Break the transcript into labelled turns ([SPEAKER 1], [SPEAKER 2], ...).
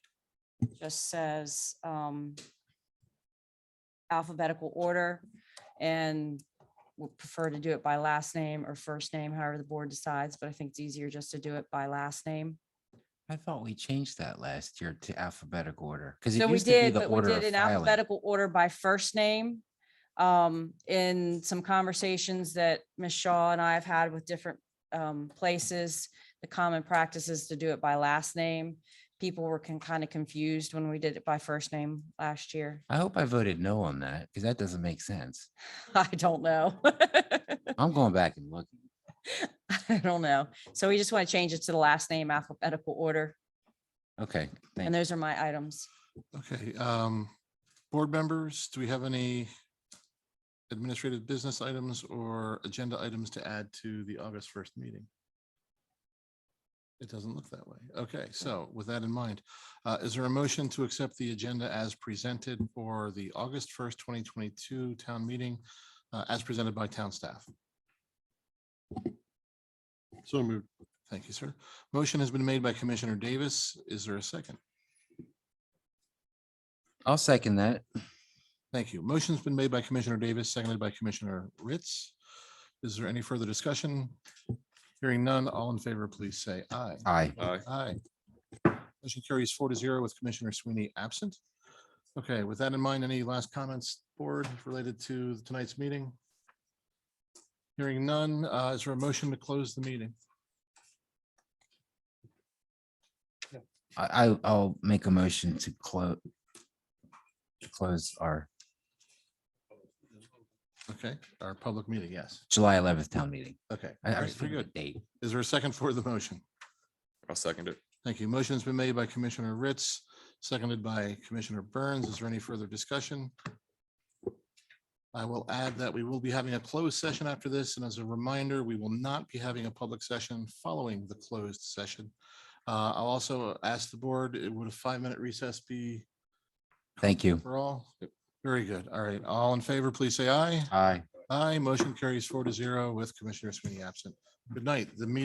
[SPEAKER 1] just says um, alphabetical order and would prefer to do it by last name or first name, however the board decides, but I think it's easier just to do it by last name.
[SPEAKER 2] I thought we changed that last year to alphabetic order because
[SPEAKER 1] So
[SPEAKER 2] it
[SPEAKER 1] we
[SPEAKER 2] used to be
[SPEAKER 1] did,
[SPEAKER 2] the
[SPEAKER 1] but we
[SPEAKER 2] order
[SPEAKER 1] did
[SPEAKER 2] of
[SPEAKER 1] in
[SPEAKER 2] filing.
[SPEAKER 1] alphabetical order by first name. Um, in some conversations that Ms. Shaw and I have had with different um places, the common practice is to do it by last name. People were can kind of confused when we did it by first name last year.
[SPEAKER 2] I hope I voted no on that because that doesn't make sense.
[SPEAKER 1] I don't know.
[SPEAKER 2] I'm going back and looking.
[SPEAKER 1] I don't know. So we just want to change it to the last name alphabetical order.
[SPEAKER 2] Okay,
[SPEAKER 1] And
[SPEAKER 2] thank
[SPEAKER 1] those are my items.
[SPEAKER 3] Okay, um, board members, do we have any administrative business items or agenda items to add to the August first meeting? It doesn't look that way. Okay, so with that in mind, uh, is there a motion to accept the agenda as presented for the August first, twenty twenty-two town meeting uh, as presented by town staff? So moved. Thank you, sir. Motion has been made by Commissioner Davis. Is there a second?
[SPEAKER 2] I'll second that.
[SPEAKER 3] Thank you. Motion's been made by Commissioner Davis, seconded by Commissioner Ritz. Is there any further discussion? Hearing none, all in favor, please say aye.
[SPEAKER 2] Aye.
[SPEAKER 3] Aye. Motion carries four to zero with Commissioner Sweeney absent. Okay, with that in mind, any last comments, board, related to tonight's meeting? Hearing none, uh, is there a motion to close the meeting?
[SPEAKER 2] I, I- I'll make a motion to close. Close our
[SPEAKER 3] Okay, our public meeting, yes.
[SPEAKER 2] July eleventh town meeting.
[SPEAKER 3] Okay,
[SPEAKER 2] I- I
[SPEAKER 3] all right,
[SPEAKER 2] was
[SPEAKER 3] very
[SPEAKER 2] thinking of
[SPEAKER 3] good.
[SPEAKER 2] the Date.
[SPEAKER 3] Is there a second for the motion?
[SPEAKER 4] I'll second it.
[SPEAKER 3] Thank you. Motion's been made by Commissioner Ritz, seconded by Commissioner Burns. Is there any further discussion? I will add that we will be having a closed session after this, and as a reminder, we will not be having a public session following the closed session. Uh, I'll also ask the board, uh, would a five-minute recess be
[SPEAKER 2] Thank you.
[SPEAKER 3] for all? Very good. All right. All in favor, please say aye.
[SPEAKER 2] Aye.
[SPEAKER 3] Aye. Motion carries four to zero with Commissioner Sweeney absent. Good night. The meeting